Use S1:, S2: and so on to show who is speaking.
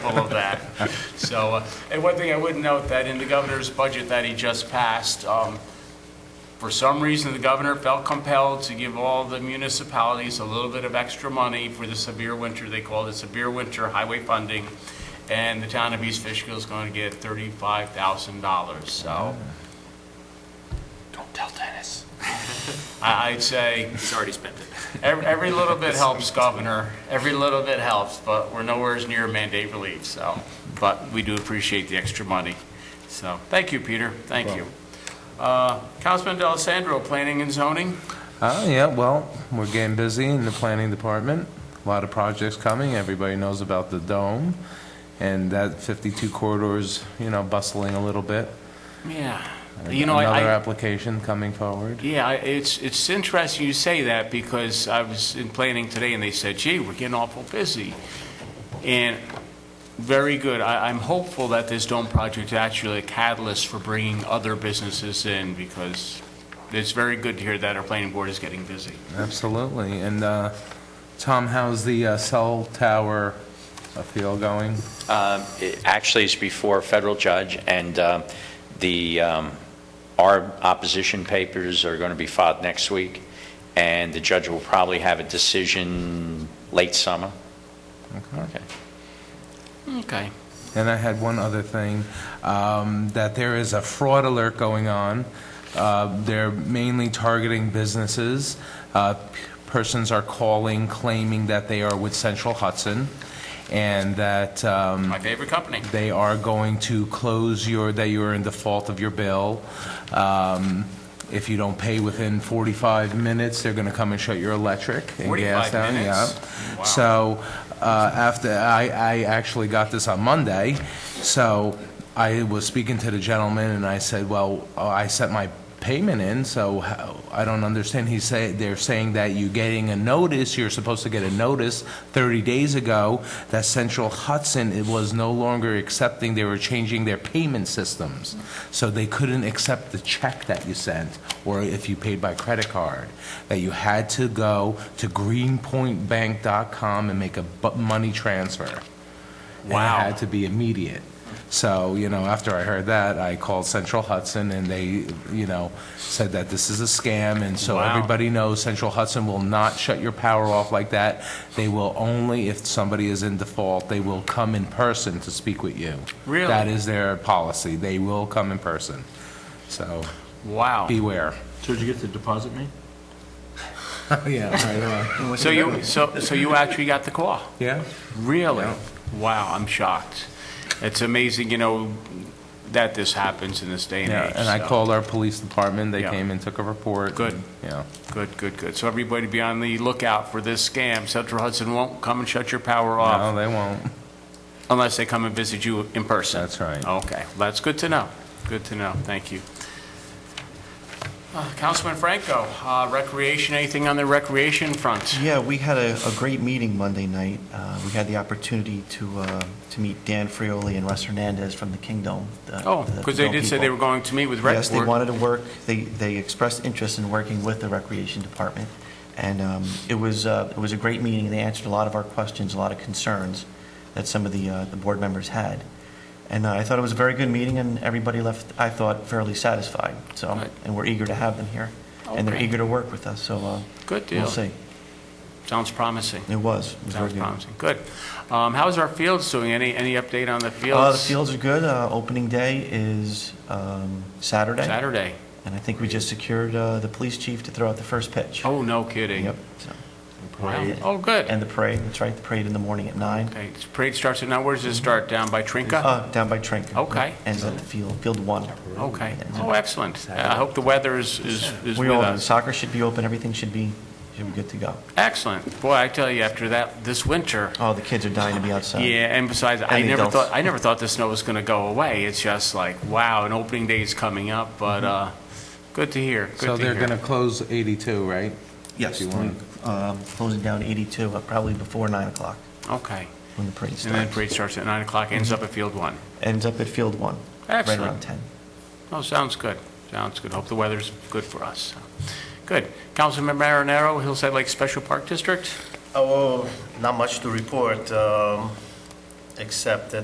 S1: all of that. So, uh, and one thing I would note, that in the governor's budget that he just passed, um, for some reason, the governor felt compelled to give all the municipalities a little bit of extra money for the severe winter, they called it severe winter highway funding, and the town of East Fishkill is going to get $35,000, so
S2: Don't tell Dennis.
S1: I- I'd say
S2: He's already spent it.
S1: Every, every little bit helps, Governor. Every little bit helps, but we're nowhere as near mandate relief, so. But we do appreciate the extra money. So, thank you, Peter. Thank you. Uh, Councilman D'Alessandro, Planning and Zoning?
S3: Uh, yeah, well, we're getting busy in the planning department. A lot of projects coming. Everybody knows about the dome. And that 52 corridors, you know, bustling a little bit.
S1: Yeah. You know, I-
S3: Another
S1: I,
S3: application coming forward.
S1: yeah, I- it's, it's interesting you say that because I was in planning today and they said, gee, we're getting awful busy. And very good. I, I'm hopeful that this dome project is actually a catalyst for bringing other businesses in because it's very good to hear that our planning board is getting busy.
S3: Absolutely. And, uh, Tom, how's the uh, cell tower appeal going?
S4: Um, it Actually, it's before a federal judge, and um, the, um, our opposition papers are going to be filed next week, and the judge will probably have a decision late summer. Okay.
S1: Okay.
S3: And I had one other thing, um, that there is a fraud alert going on. Uh, They're mainly targeting businesses. Uh, p- Persons are calling claiming that they are with Central Hudson and that um,
S1: My favorite company.
S3: they are going to close your, that you are in default of your bill. Um, If you don't pay within 45 minutes, they're going to come and shut your electric and
S1: 45
S3: gas down. yeah.
S1: minutes? Wow.
S3: So uh, after, I, I actually got this on Monday, so I was speaking to the gentleman, and I said, well, uh, I sent my payment in, so how- I don't understand. He said, they're saying that you're getting a notice, you're supposed to get a notice 30 days ago that Central Hudson, it was no longer accepting, they were changing their payment systems. So they couldn't accept the check that you sent, or if you paid by credit card, that you had to go to greenpointbank.com and make a bu- money transfer. And
S1: Wow.
S3: it had to be immediate. So, you know, after I heard that, I called Central Hudson, and they, you know, said that this is a scam, and so
S1: Wow.
S3: everybody knows Central Hudson will not shut your power off like that. They will only, if somebody is in default, they will come in person to speak with you.
S1: Really?
S3: That is their policy. They will come in person. So
S1: Wow.
S3: beware.
S5: So did you get the deposit made?
S3: Yeah, right away.
S1: So you, so, so you actually got the call?
S3: Yeah?
S1: Really? Wow, I'm shocked. It's amazing, you know, that this happens in this day and age.
S3: Yeah, and I
S1: so.
S3: called our police department. They
S1: Yeah.
S3: came and took a report.
S1: Good.
S3: Yeah.
S1: Good, good, good. So everybody be on the lookout for this scam. Central Hudson won't come and shut your power
S3: No,
S1: off
S3: they won't.
S1: unless they come and visit you in person.
S3: That's right.
S5: Oh,
S1: Okay, Well, that's good to know. Good to know. Thank you. Uh, Councilman Franco, uh, recreation, anything on the recreation front?
S6: Yeah, we had a, a great meeting Monday night. Uh, We had the opportunity to, uh, to meet Dan Frioli and Russ Hernandez from the Kingdom.
S1: Oh, because they did say they were going to meet with Rec
S6: Yes, they
S1: Board.
S6: wanted to work, they, they expressed interest in working with the Recreation Department. And um, it was, uh, it was a great meeting. They answered a lot of our questions, a lot of concerns that some of the, uh, the board members had. And uh, I thought it was a very good meeting, and everybody left, I thought, fairly satisfied, so,
S1: Right.
S6: and we're eager to have them here. And they're
S1: Okay.
S6: eager to work with us, so uh,
S1: Good deal.
S6: we'll see.
S1: Sounds promising.
S6: It was, it was very
S1: Sounds
S6: good.
S1: promising. Good. Um, How's our fields doing? Any, any update on the fields?
S6: Uh, the fields are good. Uh, opening day is, um, Saturday.
S1: Saturday.
S6: And I think we just secured, uh, the police chief to throw out the first pitch.
S1: Oh, no kidding.
S6: Yep. so.
S1: Wow. Oh, good.
S6: And the parade, that's right, the parade in the morning at nine,
S1: Okay, parade starts at, now where does it start? Down by Trinka?
S6: uh, down by Trinket.
S1: Okay.
S6: Ends at the field, field one.
S1: Okay.
S6: Ends at-
S1: Oh, excellent. I hope the weather is, is is
S6: We
S1: with
S6: all,
S1: us.
S6: soccer should be open, everything should be, should be good to go.
S1: Excellent. Boy, I tell you, after that, this winter,
S6: Oh, the kids are dying to be outside.
S1: yeah, and besides, I
S6: And the
S1: never
S6: adults.
S1: thought, I never thought the snow was going to go away. It's just like, wow, an opening day is coming up, but,
S6: Mm-hmm.
S1: uh, good to hear, good to hear.
S3: So they're going to close 82, right? If
S6: Yes,
S3: you want.
S6: we, um, closing down eighty-two, uh, probably before nine o'clock
S1: Okay.
S6: when the parade starts.
S1: And then parade starts at 9 o'clock, ends
S6: Mm-hmm.
S1: up at Field 1.
S6: Ends up at field one.
S1: Excellent.
S6: Right around ten.
S1: Oh, sounds good. Sounds good. Hope the weather's good for us. Good. Councilman Marinero, Hillside Lake Special Park District?
S7: Oh, not much to report, um, except that